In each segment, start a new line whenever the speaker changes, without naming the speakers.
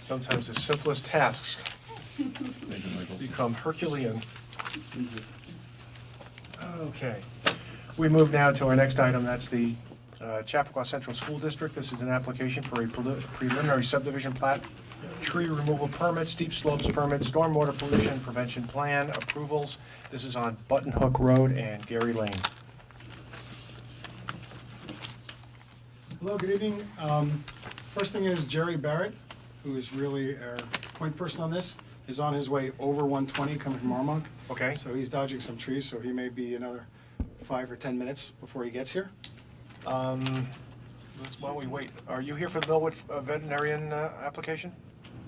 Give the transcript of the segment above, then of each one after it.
Sometimes the simplest tasks become Herculean. Okay. We move now to our next item, that's the uh, Chappaqua Central School District. This is an application for a preli- preliminary subdivision plat, tree removal permit, steep slopes permit, stormwater pollution prevention plan approvals. This is on Button Hook Road and Gary Lane.
Hello, good evening. Um, First thing is Jerry Barrett, who is really our point person on this, is on his way over 120 coming from Armonk.
Okay.
So he's dodging some trees, so he may be another five or 10 minutes before he gets here.
Um, let's- While we wait, are you here for the Millwood uh, veterinarian uh, application?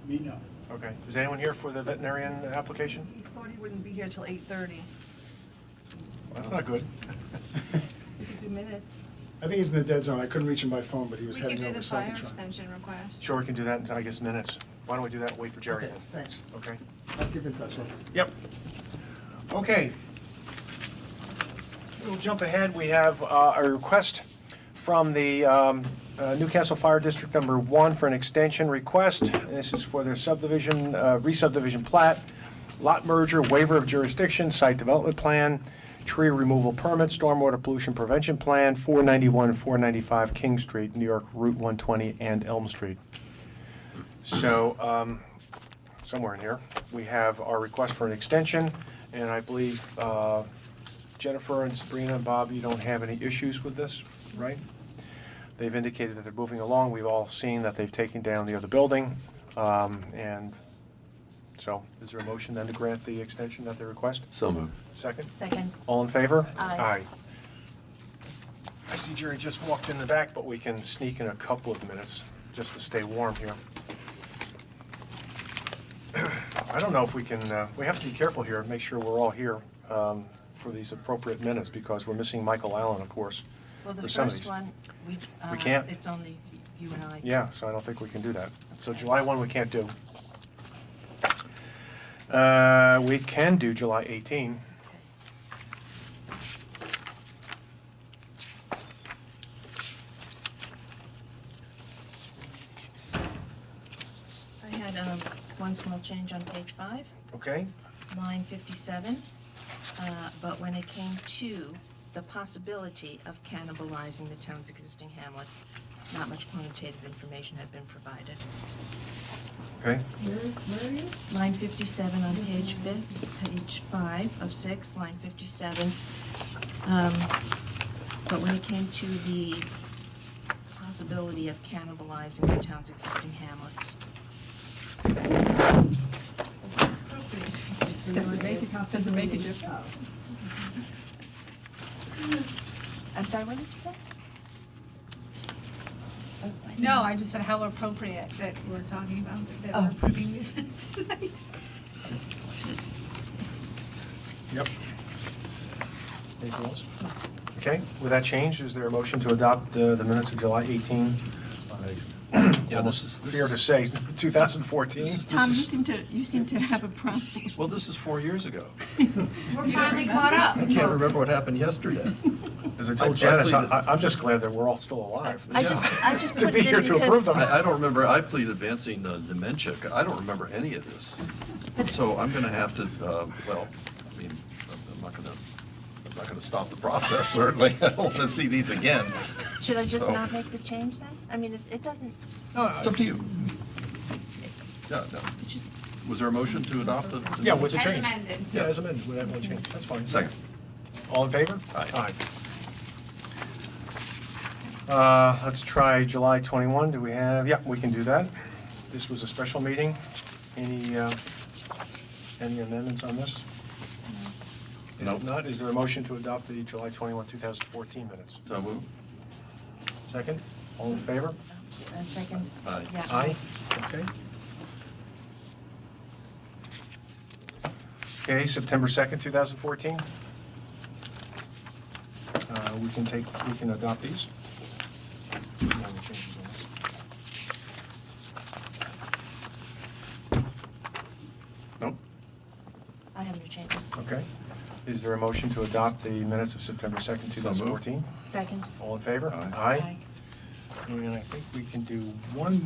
Me, no.
Okay. Is anyone here for the veterinarian application?
He thought he wouldn't be here till eight thirty.
That's not good.
We could do minutes.
I think he's in the dead zone. I couldn't reach him by phone, but he
We
was
could
heading
do
over,
the
so I
fire
can try.
extension request.
Sure, we can do that in, I guess, minutes. Why don't we do that and wait for Jerry
Okay,
then?
thanks.
Okay?
I'll keep in touch. okay?
Yep. Okay. We'll jump ahead. We have uh, a request from the um, uh, Newcastle Fire District Number One for an extension request. This is for their subdivision, uh, re-subdivision plat, lot merger, waiver of jurisdiction, site development plan, tree removal permit, stormwater pollution prevention plan, 491, 495 King Street, New York, Route 120, and Elm Street. So, um, somewhere in here, we have our request for an extension, and I believe uh, Jennifer and Sabrina and Bob, you don't have any issues with this, right? They've indicated that they're moving along, we've all seen that they've taken down the other building, um, and so, is there a motion then to grant the extension that they request?
So moved.
Second?
Second.
All in favor?
Aye.
I see Jerry just walked in the back, but we can sneak in a couple of minutes just to stay warm here. I don't know if we can, uh, we have to be careful here and make sure we're all here um, for these appropriate minutes because we're missing Michael Allen, of course.
Well, the
Oh, for some of
first
these.
one, we, uh,
We can't.
it's only you and I.
Yeah, so I don't think we can do that. So July 1, we can't do. Uh, We can do July 18.
I had um, one small change on page five,
Okay?
line 57. uh, But when it came to the possibility of cannibalizing the town's existing hamlets, not much quantitative information had been provided.
Okay?
Line 57 on page fif, page five of six, line 57. Um, But when it came to the possibility of cannibalizing the town's existing hamlets.
Does it make it, does it make a difference?
I'm sorry, what did you say? Oh, I didn't-
No, I just said how appropriate that we're talking about, that we're approving these minutes tonight.
Yep. Anything else? Okay, with that change, is there a motion to adopt uh, the minutes of July 18?
Yeah, this is. this
Fear to
is-
say, 2014?
This is-
Tom, you
this is-
seem to, you seem to have a problem.
Well, this is four years ago.
We're finally caught up.
I can't remember what happened yesterday.
As I
I- I
told Janice, I-
pleaded-
I- I'm just glad that we're all still alive.
I just, I just
To
put
be
it in
here to approve
because,
them.
I, I don't remember, I plead advancing uh, dementia. I don't remember any of this. So I'm going to have to, uh, well, I mean, I'm- I'm not going to, I'm not going to stop the process, certainly. I don't want to see these again.
should I just
So-
not make the change then? I mean, it, it doesn't,
It's up to you. Yeah, no.
it's just,
Was there a motion to adopt the? the-
Yeah, with the change.
amended.
Yeah, as amended, with that one change, that's fine.
Second.
All in favor?
Aye.
Aye. Uh, Let's try July 21, do we have, yeah, we can do that. This was a special meeting. Any, uh, any amendments on this?
No.
If not, is there a motion to adopt the July 21, 2014 minutes?
So moved.
Second, all in favor?
a second,
Aye.
yeah.
Aye, okay. Okay, September 2nd, 2014. Uh, We can take, we can adopt these. No other changes on this.
Nope.
I have no changes.
Okay. Is there a motion to adopt the minutes of September 2nd, 2014?
Second.
All in favor?
Aye.
Aye. And I think we can do one